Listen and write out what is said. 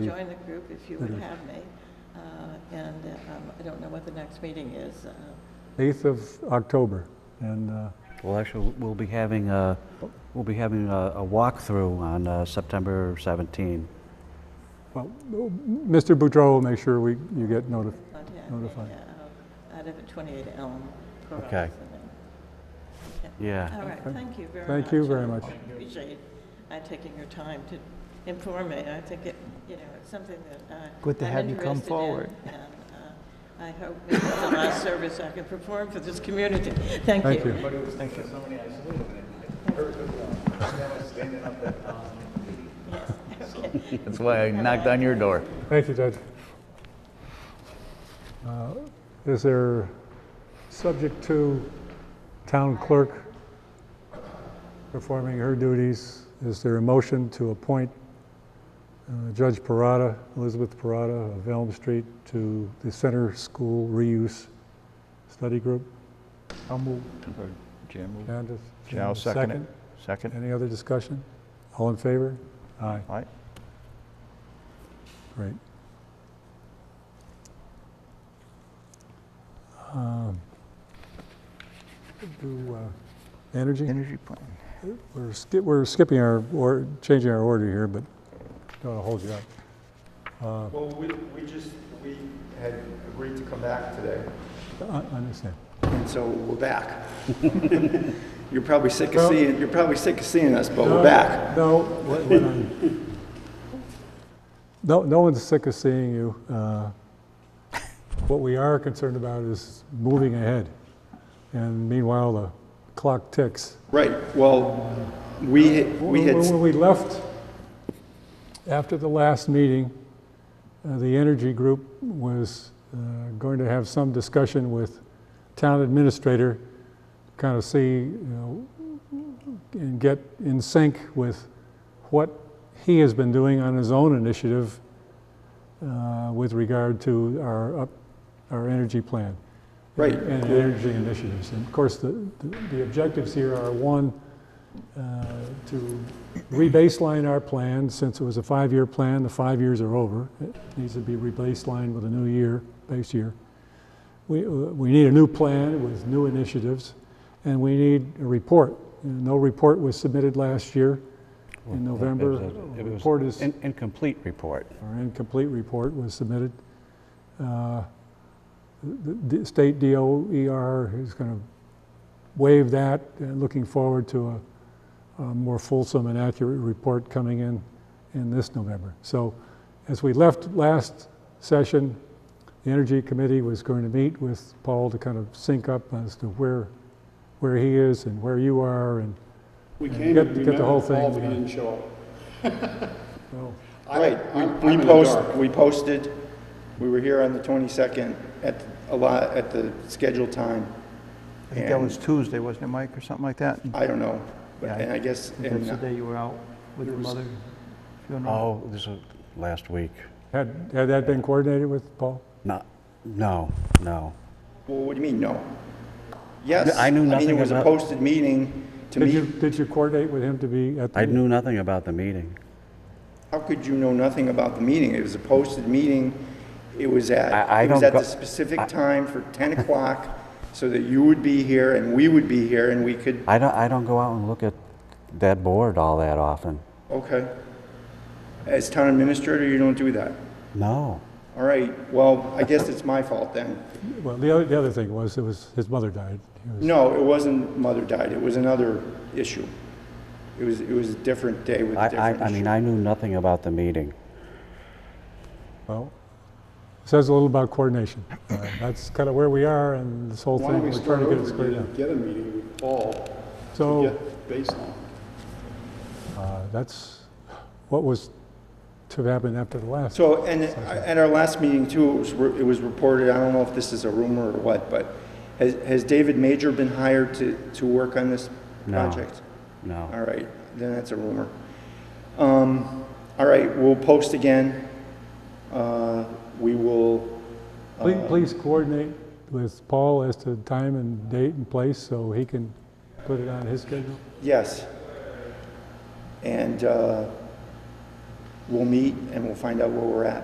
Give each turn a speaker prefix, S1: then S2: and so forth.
S1: Mm.
S2: join the group if you
S1: Mm-hmm.
S2: would have me. Uh, And um, I don't know what the next meeting is. Uh,
S1: 8th of October. And uh,
S3: Well, actually, we'll be having a, we'll be having a a walkthrough on uh, September 17.
S1: Mr. Boudreau will make sure we, you get notified.
S2: contact me,
S1: Notify.
S2: uh, Out of 28 Elm. Corrales.
S3: Okay. Yeah.
S2: All right, thank you very much.
S1: Thank you very much.
S2: I Appreciate uh, taking your time to inform me. I think it, you know, it's something that I.
S4: Good to
S2: I'm
S4: have you come
S2: interested in,
S4: forward.
S2: And uh, I hope it's the last service I can perform for this community. Thank you.
S1: Thank you.
S5: That's why I knocked on your door.
S1: Thank you, Judge. Uh, Is there, subject to town clerk performing her duties, is there a motion to appoint uh, Judge Parada, Elizabeth Parada of Elm Street, to the Center School Reuse Study Group?
S5: I'll move. Jim move.
S1: Candace?
S5: Yeah, I'll second it. Second?
S1: Any other discussion? All in favor? Aye.
S5: All right.
S1: Great. Um, Do, uh, energy?
S5: Energy plan.
S1: We're skip, we're skipping our, or, changing our order here, but don't wanna hold you up.
S6: Well, we, we just, we had agreed to come back today,
S1: I, I understand.
S6: and so we're back. You're probably sick of seeing, you're probably sick of seeing us, but we're back.
S1: No, what- what I'm- no, no one's sick of seeing you. Uh, What we are concerned about is moving ahead. And meanwhile, the clock ticks.
S6: Right, well, we, we
S1: When-
S6: had,
S1: When we left, after the last meeting, uh, the Energy Group was uh, going to have some discussion with town administrator, kind of see, you know, and get in sync with what he has been doing on his own initiative uh, with regard to our, up- our energy plan
S6: right,
S1: and energy initiatives. And of course, the, the- the objectives here are, one, uh, to rebaseline our plan, since it was a five-year plan, the five years are over. It needs to be rebaselined with a new year, base year. We, uh, we need a new plan with new initiatives, and we need a report. No report was submitted last year in November.
S3: It was a- it was
S1: Report is
S3: an Incomplete report.
S1: our incomplete report was submitted. Uh, The the state DOER is going to waive that, and looking forward to a- a more fulsome and accurate report coming in, in this November. So as we left last session, the Energy Committee was going to meet with Paul to kind of sync up as to where, where he is and where you are, and
S7: We came
S1: Get-
S7: and we
S1: get the
S7: met
S1: whole
S7: with
S1: thing,
S7: Paul,
S1: uh,
S7: but he
S1: yeah.
S7: didn't show up.
S1: well,
S7: I-
S6: right. We-
S7: I'm- I'm
S6: We
S7: in the
S6: post,
S7: dark.
S6: we posted, we were here on the 22nd at a lot, at the scheduled time.
S5: I think that
S6: And
S5: was Tuesday, wasn't it, Mike, or something like that?
S6: I don't know, but-
S5: Yeah, I-
S6: and I guess,
S4: That's the
S6: and
S4: day you were out with your mother funeral?
S3: Oh, this was last week.
S1: had, had that been coordinated with Paul?
S3: No, no, no.
S6: Well, what do you mean, no? Yes.
S3: I knew
S6: mean,
S3: nothing
S6: it was a
S3: about-
S6: posted meeting to
S1: Did you,
S6: meet.
S1: did you coordinate with him to be at the?
S3: I knew nothing about the meeting.
S6: How could you know nothing about the meeting? It was a posted meeting. It was
S3: I- I
S6: at, it was
S3: don't
S6: at
S3: go-
S6: the
S3: I-
S6: specific time for 10 o'clock so that you would be here and we would be here and we could,
S3: I don't, I don't go out and look at that board all that often.
S6: okay. As town administrator, you don't do that.
S3: No.
S6: All right, well, I guess it's my fault then.
S1: Well, the other, the other thing was, it was, his mother died. He was-
S6: No, it wasn't mother died. It was another issue. It was, it was a different day with
S3: I,
S6: a
S3: I,
S6: different
S3: I mean,
S6: issue.
S3: I knew nothing about the meeting.
S1: Well, says a little about coordination. Uh, That's kind of where we are and this whole
S7: Why
S1: thing,
S7: don't we
S1: we're
S7: start
S1: trying to get it
S7: over
S1: squared
S7: again
S1: out.
S7: and get a meeting with Paul to
S1: So,
S7: get baseline?
S1: uh, that's what was to happen after the last.
S6: So, and at our last meeting too, it was, it was reported, I don't know if this is a rumor or what, but has, has David Major been hired to, to work on this
S3: No.
S6: project?
S3: No.
S6: All right, then that's a rumor. Um, all right, we'll post again. Uh, we will,
S7: uh,
S1: Please, please coordinate with Paul as to time and date and place so he can put it on his schedule.
S6: yes. And, uh, we'll meet and we'll find out where we're at.